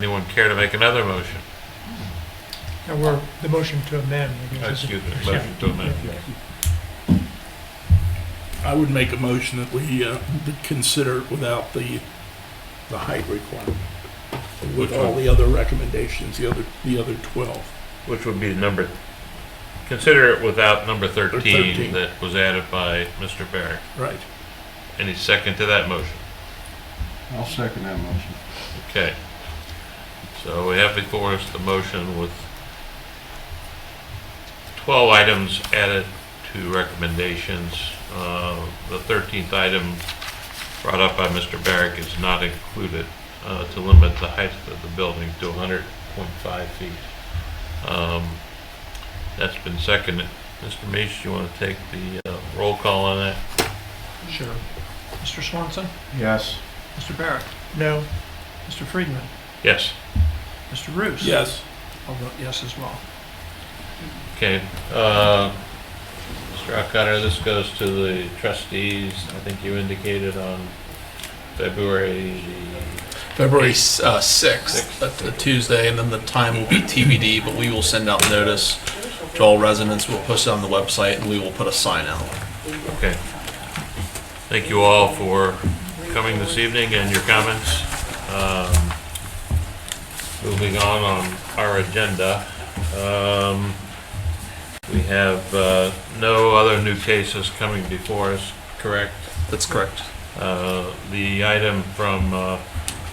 Anyone care to make another motion? Now, we're, the motion to amend. I guess, is- Excuse me, motion to amend. I would make a motion that we uh, consider it without the, the height requirement. Which With all one? the other recommendations, the other, the other 12. Which would be number, consider it without number 13 13. that was added by Mr. Barrett. Right. Any second to that motion? I'll second that motion. Okay. So we have before us the motion with 12 items added to recommendations. Uh, The 13th item brought up by Mr. Barrick is not included, uh, to limit the height of the building to 100.5 feet. Um, That's been seconded. Mr. Meach, you want to take the uh, roll call on that? Sure. Mr. Swanson? Yes. Mr. Barrett? No. Mr. Friedman? Yes. Mr. Roos? Yes. I'll vote yes as well. Okay, uh, Mr. O'Connor, this goes to the trustees. I think you indicated on February February uh, 6th, that's the Tuesday, and then the time will be TBD, but we will send out notice to all residents. We'll post it on the website, and we will put a sign out. the, okay. Thank you all for coming this evening and your comments. Um, Moving on on our agenda, um, we have uh, no other new cases coming before us, correct? That's correct. Uh, the item from uh,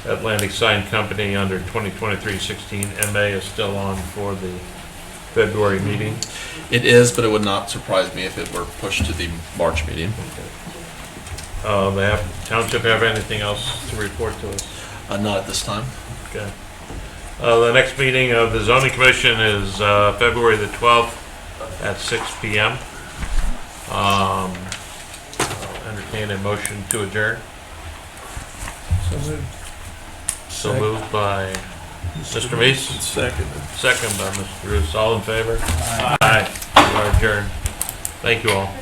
Atlantic Sign Company under 2023-16 MA is still on for the February meeting. It is, but it would not surprise me if it were pushed to the March meeting. Uh, They have, township have anything else to report to us? Uh, Not at this time. Okay. Uh, The next meeting of the zoning commission is uh, February the 12th at 6 PM. Um, I'll Entertain a motion to adjourn. So moved. So Second. moved by Mr. Meese. Second. Second by Mr. Bruce, all in favor? Aye. We are adjourned. Thank you all.